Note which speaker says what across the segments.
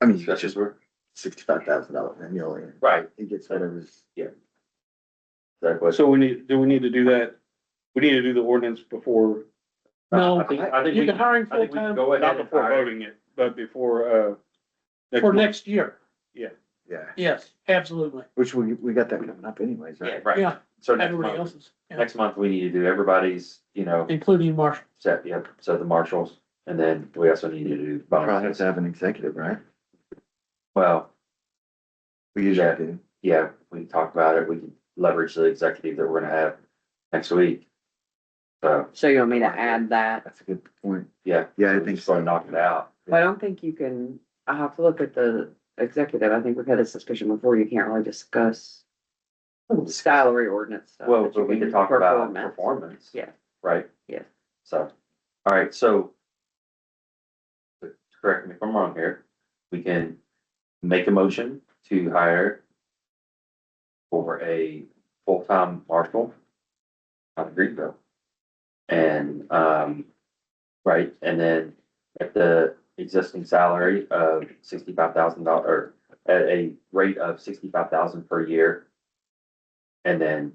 Speaker 1: I mean, stretches were sixty-five thousand dollars annually.
Speaker 2: Right.
Speaker 1: He gets whatever's.
Speaker 2: Yeah.
Speaker 1: That was.
Speaker 3: So we need, do we need to do that? We need to do the ordinance before,
Speaker 2: No,
Speaker 1: I think-
Speaker 2: I think
Speaker 4: You
Speaker 2: we,
Speaker 4: can hire him
Speaker 2: I think we
Speaker 4: full-time
Speaker 2: go ahead
Speaker 3: not
Speaker 2: and
Speaker 3: before
Speaker 2: hire-
Speaker 3: voting it, but before, uh.
Speaker 4: for
Speaker 3: month.
Speaker 4: next year.
Speaker 1: Yeah,
Speaker 4: Yes, absolutely.
Speaker 1: which we, we got that coming up anyways,
Speaker 2: Yeah,
Speaker 1: right?
Speaker 2: right.
Speaker 4: Yeah,
Speaker 2: So next
Speaker 4: everybody
Speaker 2: month,
Speaker 4: else's, yeah,
Speaker 2: next month, we need to do everybody's, you know,
Speaker 4: including Marshall.
Speaker 2: set, yep, set the marshals. And then we also need to do
Speaker 1: Probably have
Speaker 2: bonuses.
Speaker 1: to have an executive, right?
Speaker 2: Well,
Speaker 1: We usually
Speaker 2: Yeah.
Speaker 1: do.
Speaker 2: yeah, we can talk about it. We can leverage the executive that we're gonna have next week. So,
Speaker 5: So you want me to add that?
Speaker 1: That's a good point.
Speaker 2: yeah.
Speaker 1: Yeah, I
Speaker 2: we're
Speaker 1: think
Speaker 2: just gonna
Speaker 1: so.
Speaker 2: Knock it out.
Speaker 5: Well, I don't think you can, I'll have to look at the executive. I think we've had this discussion before. You can't really discuss salary ordinance stuff.
Speaker 2: Well,
Speaker 5: but you
Speaker 2: but we
Speaker 5: can
Speaker 2: can talk about
Speaker 5: performance.
Speaker 2: performance.
Speaker 5: Yeah.
Speaker 2: Right?
Speaker 5: Yeah.
Speaker 2: So, all right, so. but Correct me if I'm wrong here, we can make a motion to hire. For a full-time marshal. Out of Greenville. And, um, right, and then at the existing salary of sixty-five thousand dollar, or at a rate of sixty-five thousand per year. And then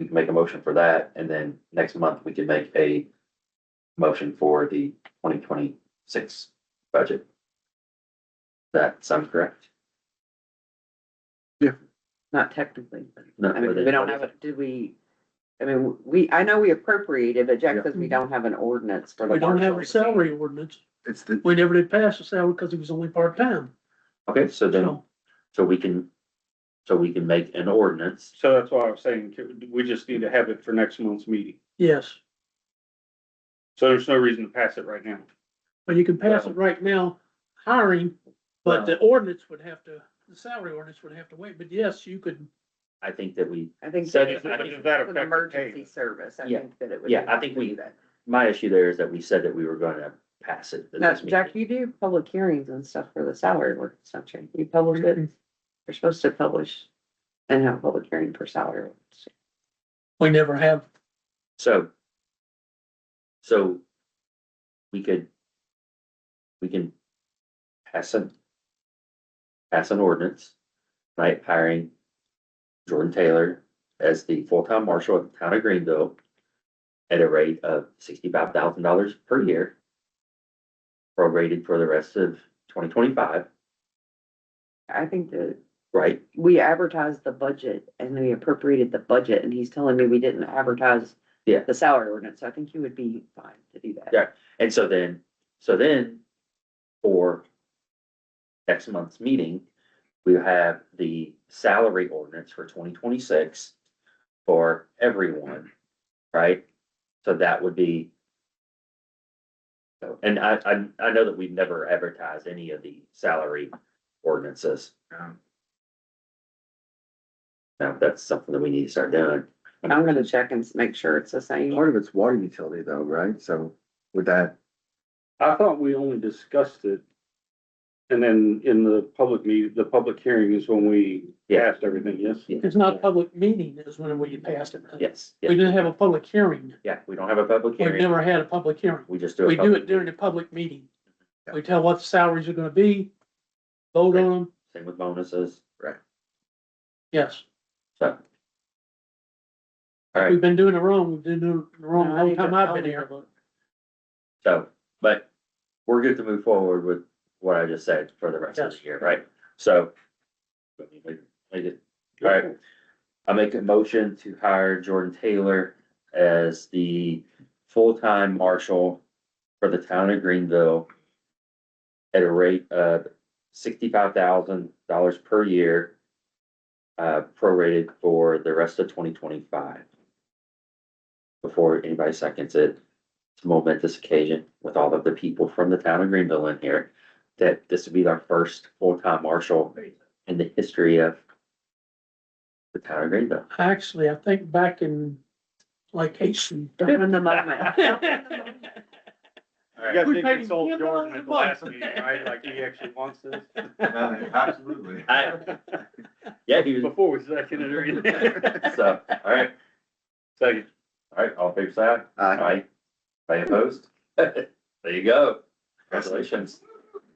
Speaker 2: we can make a motion for that, and then next month we can make a motion for the twenty twenty-six budget. That sounds correct?
Speaker 5: Not technically.
Speaker 2: No,
Speaker 5: I mean, we don't have it, did we? I mean, we, I know we appropriated, but Jack
Speaker 1: Yeah.
Speaker 5: says we don't have an ordinance for the
Speaker 4: We don't have a
Speaker 5: marshals.
Speaker 4: salary ordinance.
Speaker 1: It's the,
Speaker 4: We never did pass a salary because it was only part-time,
Speaker 2: Okay, so then,
Speaker 4: so.
Speaker 2: so we can, so we can make an ordinance,
Speaker 3: So that's why I was saying, we just need to have it for next month's meeting.
Speaker 4: Yes,
Speaker 3: So there's no reason to pass it right now.
Speaker 4: but you can pass it right now, hiring, but the ordinance would have to, the salary ordinance would have to wait, but yes, you could.
Speaker 2: I think that we,
Speaker 5: I think.
Speaker 2: So
Speaker 5: that
Speaker 2: does-
Speaker 5: it's
Speaker 3: does that
Speaker 5: An
Speaker 3: affect the pay?
Speaker 5: emergency service. I
Speaker 2: Yeah.
Speaker 5: think that it would.
Speaker 2: Yeah, I think we- my issue there is that we said that we were gonna pass it. at
Speaker 5: No,
Speaker 2: this
Speaker 5: Jack,
Speaker 2: meeting.
Speaker 5: you do public hearings and stuff for the salary ordinance, don't you? You publish it.
Speaker 2: Mm-hmm.
Speaker 5: You're supposed to publish and have a public hearing for salary. ordinance.
Speaker 4: We never have,
Speaker 2: So. So. We could. We can. Pass an. Pass an ordinance, right, hiring. Jordan Taylor as the full-time marshal of the town of Greenville. At a rate of sixty-five thousand dollars per year. Prorated for the rest of twenty twenty-five,
Speaker 5: I think that
Speaker 2: right?
Speaker 5: we advertised the budget and then we appropriated the budget and he's telling me we didn't advertise.
Speaker 2: Yeah.
Speaker 5: The salary ordinance. So I think you would be fine to do that.
Speaker 2: Yeah. And so then, so then, for next month's meeting, we have the salary ordinance for twenty twenty-six for everyone, right? So that would be. so- And I, I, I know that we've never advertised any of the salary ordinances.
Speaker 1: um,
Speaker 2: Now, that's something that we need to start doing.
Speaker 5: I'm gonna check and s- make sure it's the same.
Speaker 1: part of it's water utility though, right? So would that,
Speaker 3: I thought we only discussed it. And then in the public meet, the public hearing is when we
Speaker 2: Yeah.
Speaker 3: passed everything, yes?
Speaker 4: it's not a public meeting is when we passed it.
Speaker 2: Yes,
Speaker 4: We
Speaker 2: yeah,
Speaker 4: didn't have a public hearing.
Speaker 2: yeah, we don't have a public
Speaker 4: We've
Speaker 2: hearing,
Speaker 4: never had a public hearing.
Speaker 2: we just do. a
Speaker 4: We do
Speaker 2: public-
Speaker 4: it during the public meeting. We tell what the salaries are gonna be, vote on them,
Speaker 2: Same with bonuses,
Speaker 4: yes.
Speaker 2: so. All right.
Speaker 4: We've been doing it wrong, we've been doing it wrong the
Speaker 5: No, I
Speaker 4: whole
Speaker 5: need
Speaker 4: time
Speaker 5: to-
Speaker 4: I've
Speaker 5: I'll
Speaker 4: been
Speaker 5: need
Speaker 4: here.
Speaker 5: to look.
Speaker 2: So, but we're good to move forward with what I just said for the rest of the
Speaker 4: Yes.
Speaker 2: year, right? So. let me make- make it- All right, I make a motion to hire Jordan Taylor as the full-time marshal for the town of Greenville. At a rate of sixty-five thousand dollars per year. Uh, prorated for the rest of twenty twenty-five. Before anybody seconds it, it's a momentous occasion with all of the people from the town of Greenville in here. That this would be our first full-time marshal in the history of the town of Greenville.
Speaker 4: Actually, I think back in like eighteen.
Speaker 5: Don't win the moment.
Speaker 3: You guys
Speaker 4: We
Speaker 3: did
Speaker 4: paid
Speaker 3: consult
Speaker 4: him
Speaker 3: Jordan at the
Speaker 4: $100
Speaker 3: last meeting, right? Like he actually wants this?
Speaker 1: absolutely.
Speaker 2: I, yeah, he was,
Speaker 3: Before we seconded or anything.
Speaker 2: so, all right,
Speaker 3: Second.
Speaker 2: all right, all fair side,
Speaker 1: Uh,
Speaker 2: aye, aye opposed? There you go, congratulations.